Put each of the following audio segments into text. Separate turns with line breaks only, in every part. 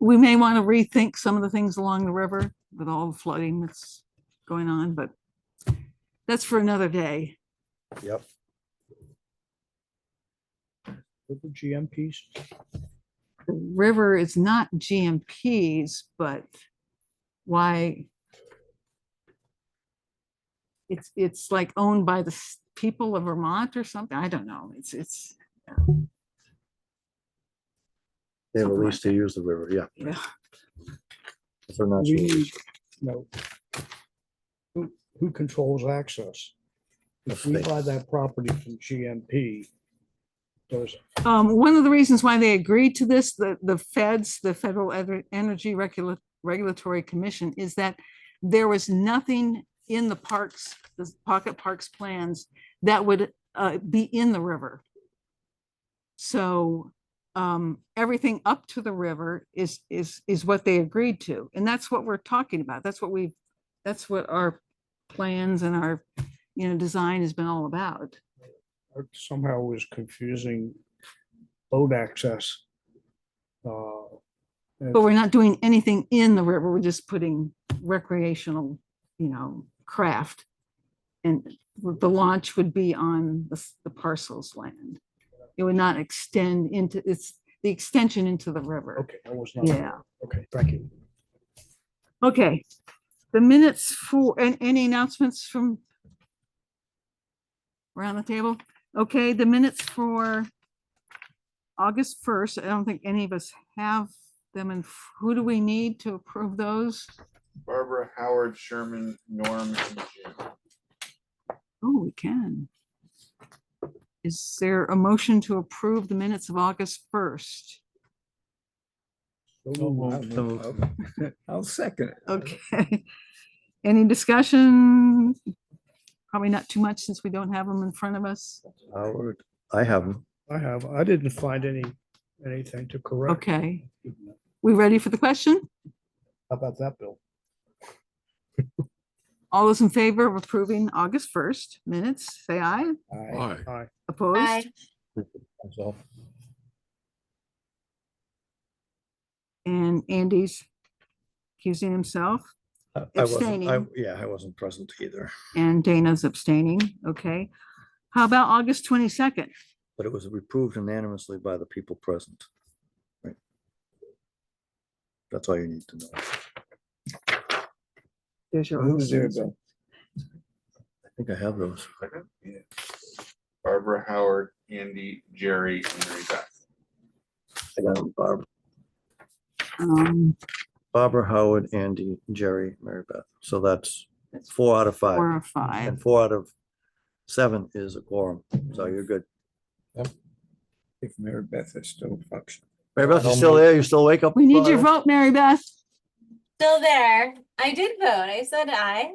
we may want to rethink some of the things along the river with all the flooding that's going on, but that's for another day.
Yep.
With the GMPs.
The river is not GMPs, but why? It's, it's like owned by the s- people of Vermont or something. I don't know. It's, it's,
They have a
Something like
lease to use the river, yeah.
yeah.
If they're not
We
sure.
need, no. Who, who controls access? If we
They-
buy that property from GMP, does,
Um, one of the reasons why they agreed to this, the, the feds, the Federal Ener- Energy Regula- Regulatory Commission, is that there was nothing in the parks, the pocket parks plans that would, uh, be in the river. So, um, everything up to the river is, is, is what they agreed to. And that's what we're talking about. That's what we, that's what our plans and our, you know, design has been all about.
uh, somehow was confusing boat access. Uh, and-
But we're not doing anything in the river. We're just putting recreational, you know, craft. And the launch would be on the s- the parcels land. It would not extend into, it's the extension into the river.
Okay, I was not,
Yeah,
okay, thank you.
okay. The minutes for, and any announcements from around the table? Okay, the minutes for August 1st. I don't think any of us have them. And who do we need to approve those?
Barbara, Howard, Sherman, Norm, and Jim.
Oh, we can. Is there a motion to approve the minutes of August first?
I'll second it.
Okay. Any discussion? Probably not too much since we don't have them in front of us.
Howard, I have them.
I have, I didn't find any, anything to correct.
Okay,
How
we ready for the question?
about that, Bill?
All those in favor of approving August first minutes, say aye.
Aye. Aye.
Opposed?
So
And Andy's accusing himself.
I I wasn't, I,
Abstaining.
yeah, I wasn't present either,
And Dana's abstaining, okay. How about August twenty-second?
but it was approved unanimously by the people present. Right. That's all you need to know.
There's your.
I think I have those.
Barbara, Howard, Andy, Jerry, and Mary Beth.
I got 'em, Barb-
Um,
Barbara, Howard, Andy, Jerry, Mary Beth. So that's four out of
four
five.
or five.
And four out of seven is a quorum, so you're good.
If Mary Beth is still functioning.
Mary Beth, you still there? You still wake up?
We need your
Barb?
vote, Mary Beth.
Still there. I did vote. I said aye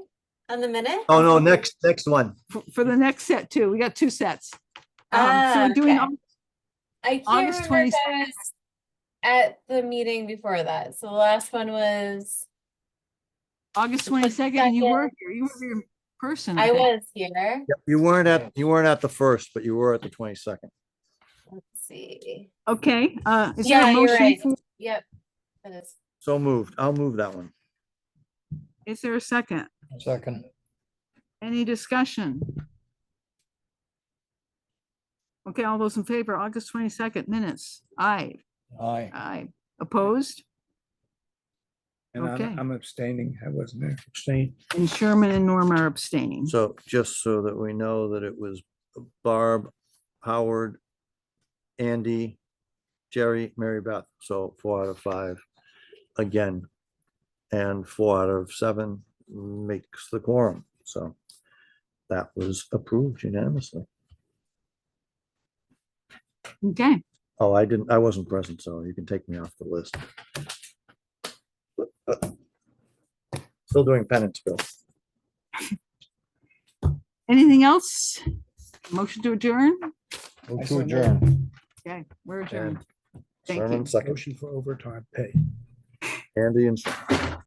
on the minute.
Oh, no, next, next one.
f- For the next set too. We got two sets. Um,
Ah,
So we're doing,
okay.
Au-
I can't
August
remember if I was at the meeting before that. So the last one was,
August
The
twenty-second, and you were
22nd.
here, you were here in person.
I
think.
was here.
Yep, You weren't at, you weren't at the first, but you were at the twenty-second.
Let's see.
Okay, uh, is there
Yeah,
a
you're
motion?
right.
for-
Yep. That is-
So moved. I'll move that one.
Is there a second?
Second.
Any discussion? Okay, all those in favor, August twenty-second minutes. Aye,
Aye.
aye. Opposed?
And
Okay.
I'm- I'm abstaining. I wasn't there.
Abstain.
And Sherman and Norm are abstaining.
So just so that we know that it was Barb, Howard, Andy, Jerry, Mary Beth. So four out of five again. And four out of seven makes the quorum. So that was approved unanimously.
Okay,
Oh, I didn't, I wasn't present, so you can take me off the list. Still doing penance, Bill.
anything else? Motion to adjourn?
I
Move
so
to
moved.
adjourn.
Okay, we're
And
adjourned. Thank you.
Sherman second.
Motion for overtime pay.
Andy and Sherman.